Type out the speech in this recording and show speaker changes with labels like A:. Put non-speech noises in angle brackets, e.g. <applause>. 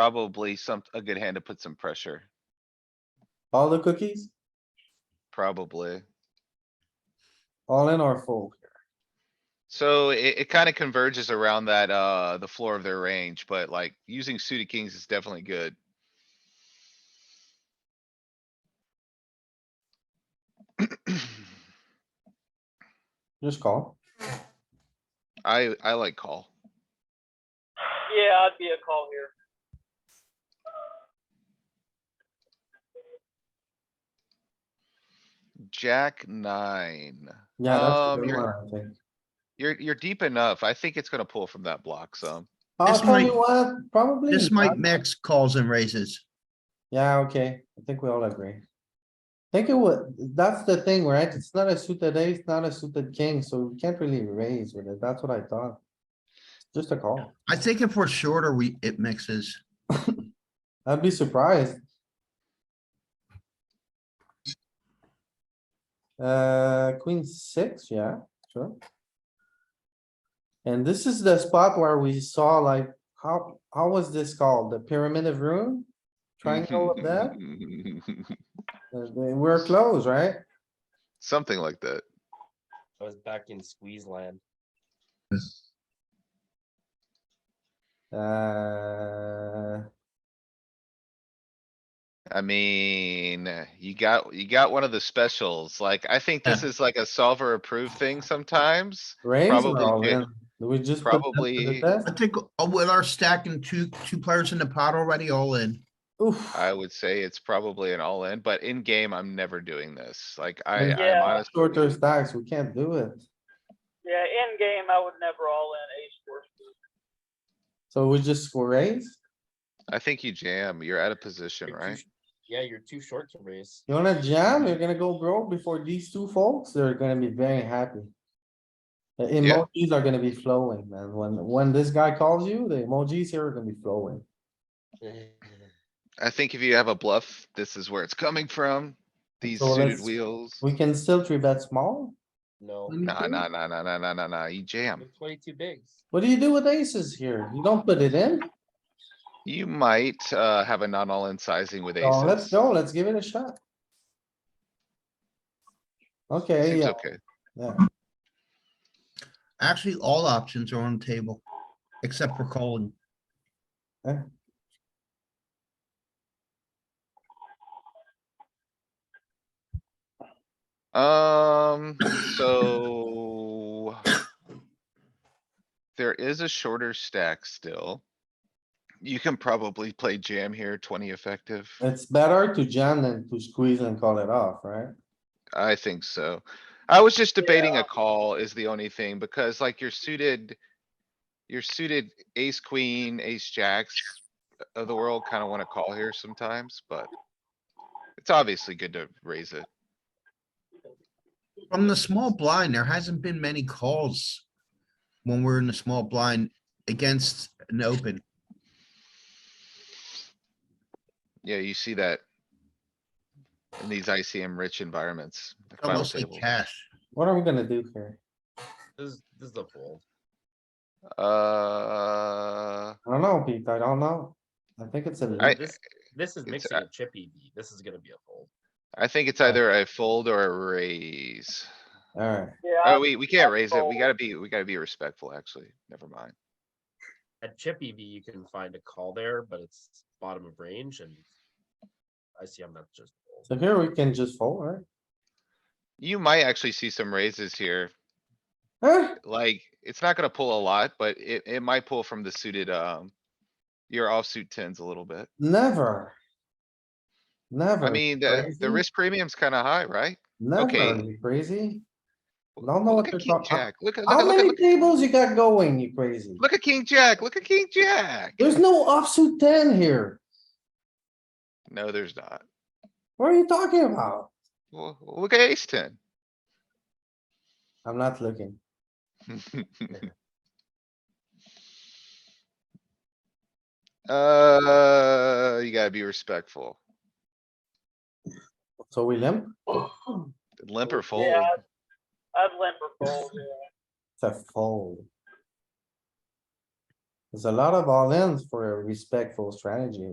A: probably some, a good hand to put some pressure,
B: All the cookies,
A: probably.
B: all in or fold?
A: So it, it kinda converges around that, uh, the floor of their range, but like using suited kings is definitely good.
B: Just call.
A: I, I like call.
C: Yeah, I'd be a call here.
A: Jack nine.
B: Yeah, that's
A: Um,
B: a good
A: you're-
B: one, I think.
A: You're, you're deep enough. I think it's gonna pull from that block some.
B: I'll
D: This
B: tell you
D: might-
B: what, probably.
D: This might
B: not.
D: max calls and raises.
B: Yeah, okay, I think we all agree. Think it would, that's the thing, right? It's not a suited ace, not a suited king, so we can't really raise with it, that's what I thought. Just a call.
D: I think if we're shorter, we, it mixes.
B: I'd be surprised. Uh, queen six, yeah, sure. And this is the spot where we saw like, how, how was this called? The pyramid of room? Triangle of that?
A: Mm-hmm.
B: Uh, they- We're close, right?
A: <laughs> Something like that.
E: I was back in squeeze land.
B: Uh,
A: I mean, you got, you got one of the specials. Like, I think this is like a solver approved thing sometimes.
B: raise or
A: Probably
B: all
A: good.
B: in? Do Oh, we just put that to the
A: Probably-
B: test?
D: I think uh, with our stacking two, two players in the pot already all in.
B: Oof,
A: I would say it's probably an all in, but in game, I'm never doing this. Like,
B: Mm.
A: I, I'm
C: Yeah.
A: honestly,
B: shorter stacks, we can't do it.
C: Yeah, in game, I would never all in ace four. suited.
B: So we just raise?
A: I think you jam. You're out of position,
E: You're too
A: right?
E: sh- Yeah, you're too short to raise.
B: You wanna jam? You're gonna go broke before these two folks, they're gonna be very happy. The
A: Yeah.
B: emojis are gonna be flowing, man. When, when this guy calls you, the emojis here are gonna be flowing.
A: I think if you have a bluff, this is where it's coming from. These
B: So
A: suited
B: let's-
A: wheels.
B: We can still three bet small?
E: <laughs> No,
A: Nah, nah, nah, nah, nah, nah, nah, nah. You jam.
E: you're twenty-two bigs.
B: What do you do with aces here? You don't put it in?
A: You might, uh, have a non all in sizing with
B: Oh, let's
A: aces.
B: go, let's give it a shot. Okay,
A: Seems
B: yeah,
A: okay.
B: yeah.
D: Actually, all options are on the table, except for calling.
A: Um, so. There is a shorter stack still. You can probably play jam here, twenty effective.
B: It's better to jam than to squeeze and call it off, right?
A: I think so. I was just debating a call is the only thing, because like your suited. Your suited ace, queen, ace, jacks of the world kinda wanna call here sometimes, but. It's obviously good to raise it.
D: From the small blind, there hasn't been many calls when we're in the small blind against an open.
A: Yeah, you see that. In these ICM rich environments. the final
D: Almost like
A: table.
D: cash.
B: What are we gonna do here?
E: This, this is a fold.
A: Uh,
B: I don't know, Pete, I don't know. I think it's a,
A: I-
E: This, this is
A: it's uh,
E: mixing a chip EV. This is gonna be a fold.
A: I think it's
B: Yeah.
A: either a fold or a raise.
B: alright,
C: Uh, Yeah,
A: Oh, we, we can't raise it. We
C: fold.
A: gotta be, we gotta be respectful, actually. Never mind.
E: At chip EV, you can find a call there, but it's bottom of range and I see I'm not just. fold.
B: so here we can just fold, right?
A: You might actually see some raises here.
B: Huh?
A: Like, it's not gonna pull a lot, but it, it might pull from the suited, um. Your offsuit tens a little bit.
B: Never. Never.
A: I mean, the,
B: crazy.
A: the risk premium's kinda high, right?
B: Never,
A: okay.
B: you crazy?
A: W-
B: Don't know
A: look
B: what
A: at
B: they're
A: king
B: talking-
A: jack. Look at, look
B: How
A: at, look at,
B: many
A: look at-
B: tables you got going, you crazy?
A: look at king jack. Look at king jack.
B: There's no offsuit ten here.
A: No, there's not.
B: What are you talking about?
A: Well, look at ace ten. <laughs>
B: I'm not looking.
A: Uh, you gotta be respectful.
B: So we limp?
A: Limp or fold.
C: Yeah, I'd limp or fold, yeah.
B: It's a fold. There's a lot of all-ins for a respectful strategy